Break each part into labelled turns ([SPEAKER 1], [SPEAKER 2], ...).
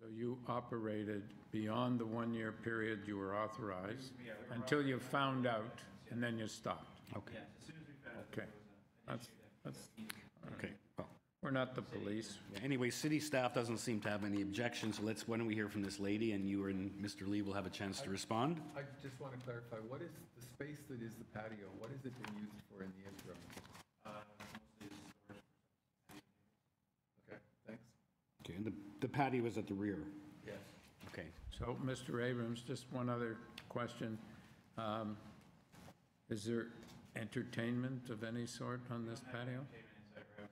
[SPEAKER 1] So you operated beyond the one-year period you were authorized until you found out, and then you stopped?
[SPEAKER 2] Okay,
[SPEAKER 3] As soon as we found out
[SPEAKER 1] Okay. That's, that's,
[SPEAKER 2] okay, well,
[SPEAKER 1] we're not the police.
[SPEAKER 2] anyway, city staff doesn't seem to have any objections, so let's, why don't we hear from this lady, and you and Mr. Lee will have a chance to respond?
[SPEAKER 4] I just want to clarify, what is the space that is the patio, what has it been used for in the interim? Okay, thanks.
[SPEAKER 2] Okay, and the- the patio is at the rear,
[SPEAKER 4] Yes.
[SPEAKER 2] okay.
[SPEAKER 1] So, Mr. Abrams, just one other question. Um, Is there entertainment of any sort on this patio?
[SPEAKER 3] Entertainment inside our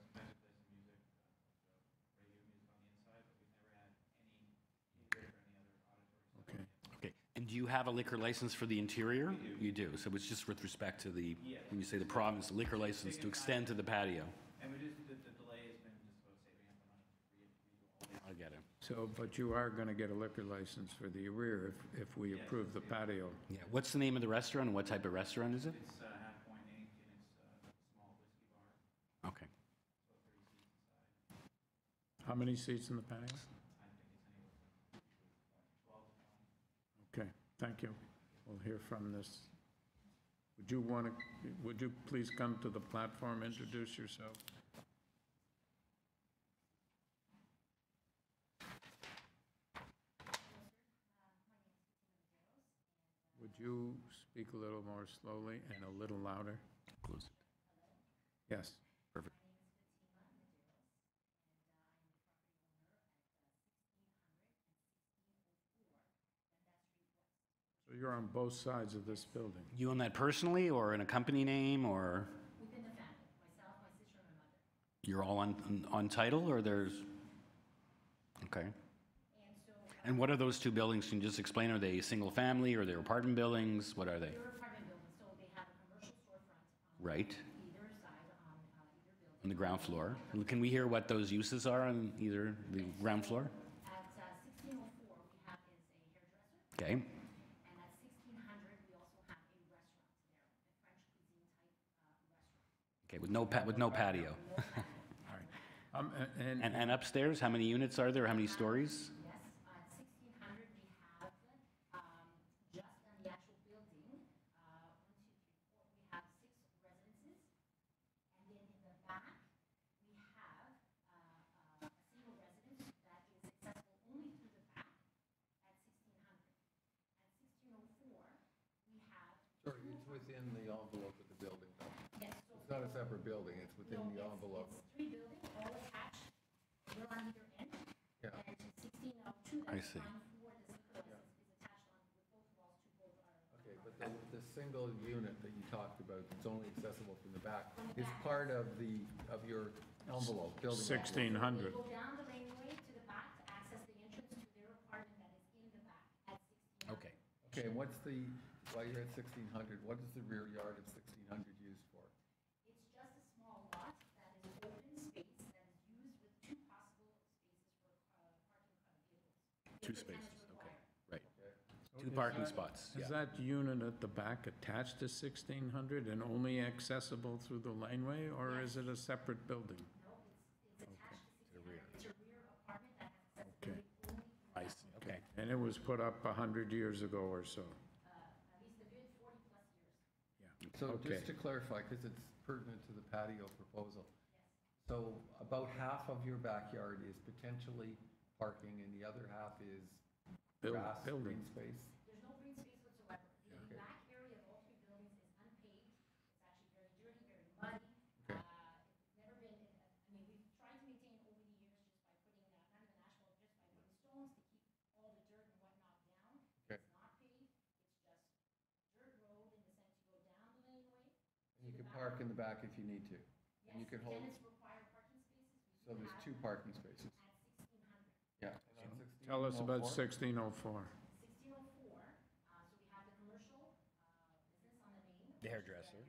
[SPEAKER 3] house, sometimes we play some music, uh, so radio music on the inside, but we've never had any ingress or any other auditory stuff.
[SPEAKER 1] Okay.
[SPEAKER 2] Okay, and do you have a liquor license for the interior? You do, so it's just with respect to the, when you say the province, liquor license to extend to the patio?
[SPEAKER 3] And we just, the, the delay has been just about saving up the money to re, redo all the
[SPEAKER 2] I get it.
[SPEAKER 1] So, but you are going to get a liquor license for the rear if, if we approve the patio.
[SPEAKER 2] Yeah, what's the name of the restaurant, and what type of restaurant is it?
[SPEAKER 3] It's uh, half point ink and it's uh, a small whiskey bar,
[SPEAKER 2] Okay,
[SPEAKER 3] so thirty seats inside.
[SPEAKER 1] How many seats in the
[SPEAKER 3] I
[SPEAKER 1] patio?
[SPEAKER 3] think it's anywhere from twelve to twenty.
[SPEAKER 1] Okay, thank you. We'll hear from this. Would you want to, would you please come to the platform, introduce yourself? Would you speak a little more slowly and a little louder?
[SPEAKER 2] close it.
[SPEAKER 1] Yes.
[SPEAKER 2] Perfect.
[SPEAKER 1] So you're on both sides of this building.
[SPEAKER 2] You own that personally, or in a company name, or
[SPEAKER 5] Within the family, myself, my sister, and my mother.
[SPEAKER 2] you're all on, on title, or there's? Okay.
[SPEAKER 5] And so
[SPEAKER 2] And what are those two buildings? Can you just explain? Are they single-family, or they're apartment buildings? What are they?
[SPEAKER 5] they're apartment buildings, so they have a commercial storefront on
[SPEAKER 2] Right,
[SPEAKER 5] either side, on uh, either building.
[SPEAKER 2] on the ground floor. And Can we hear what those uses are on either the ground floor?
[SPEAKER 5] At uh, 1604, we have is a hairdresser,
[SPEAKER 2] Okay,
[SPEAKER 5] and at 1600, we also have a restaurant there, a French cuisine type uh, restaurant.
[SPEAKER 2] okay, with no pa, with no patio.
[SPEAKER 1] All right. Um, a-
[SPEAKER 2] And,
[SPEAKER 1] And,
[SPEAKER 2] and upstairs, how many units are there? How many stories?
[SPEAKER 5] Yes, at 1600, we have, um, just on the actual building, uh, one, two, three, four, we have six residences. And then in the back, we have uh, uh, a single residence that is accessible only through the back at 1600. At 1604, we have,
[SPEAKER 4] Sorry, it's within the envelope of the building, though.
[SPEAKER 5] yes, so
[SPEAKER 4] It's not a separate building, it's
[SPEAKER 5] no,
[SPEAKER 4] within the
[SPEAKER 5] it's-
[SPEAKER 4] envelope.
[SPEAKER 5] It's three buildings, all attached, we're on either end.
[SPEAKER 4] Yeah.
[SPEAKER 5] And 1602,
[SPEAKER 2] I
[SPEAKER 5] that's
[SPEAKER 2] see.
[SPEAKER 5] line four, the single residence is attached on with both walls to both our.
[SPEAKER 4] Okay, but the, the single unit that you talked about, that's only accessible from the back, is part of the, of your envelope, building. envelope.
[SPEAKER 1] 1,600.
[SPEAKER 5] Go down the laneway to the back to access the entrance to their apartment that is in the back at 1600.
[SPEAKER 2] Okay.
[SPEAKER 4] Okay, and what's the, while you're at 1600, what is the rear yard of 1600 used for?
[SPEAKER 5] It's just a small lot that is open space that is used with two possible spaces for uh, parking of vehicles. if
[SPEAKER 2] Two
[SPEAKER 5] the tenants
[SPEAKER 2] spaces, okay,
[SPEAKER 5] require.
[SPEAKER 2] right. Two parking spots,
[SPEAKER 1] is
[SPEAKER 2] yeah.
[SPEAKER 1] that unit at the back attached to 1600 and only accessible through the laneway, or is it a separate building?
[SPEAKER 5] No, it's, it's attached to 1600. It's a rear apartment that has accessibility only through
[SPEAKER 2] I see, okay.
[SPEAKER 1] And it was put up 100 years ago or so.
[SPEAKER 5] uh, at least the bid 40 plus years.
[SPEAKER 4] So
[SPEAKER 1] Okay.
[SPEAKER 4] just to clarify, because it's pertinent to the patio proposal, so about half of your backyard is potentially parking and the other half is
[SPEAKER 1] Buil-
[SPEAKER 4] grass, green
[SPEAKER 1] building.
[SPEAKER 4] space?
[SPEAKER 5] There's no green space whatsoever. The back area of all three buildings is unpaved. It's actually very dirty, very muddy.
[SPEAKER 4] Okay.
[SPEAKER 5] Uh, It's never been, I mean, we've tried to maintain over the years just by putting, uh, not even asphalt, just by putting stones to keep all the dirt and whatnot down.
[SPEAKER 4] Okay.
[SPEAKER 5] It's not paved, it's just dirt road in the sense you go down the laneway.
[SPEAKER 4] And you can park in the back if you need to. And you can
[SPEAKER 5] Yes,
[SPEAKER 4] hold,
[SPEAKER 5] Tenants require parking spaces. We
[SPEAKER 4] so
[SPEAKER 5] do
[SPEAKER 4] there's
[SPEAKER 5] have
[SPEAKER 4] two parking spaces.
[SPEAKER 5] At sixteen hundred.
[SPEAKER 4] Yeah. and on 16
[SPEAKER 1] Tell us
[SPEAKER 4] all
[SPEAKER 1] about
[SPEAKER 4] four?
[SPEAKER 1] 1604.
[SPEAKER 5] 1604, uh, so we have the commercial uh, business on the main.
[SPEAKER 2] The hairdresser.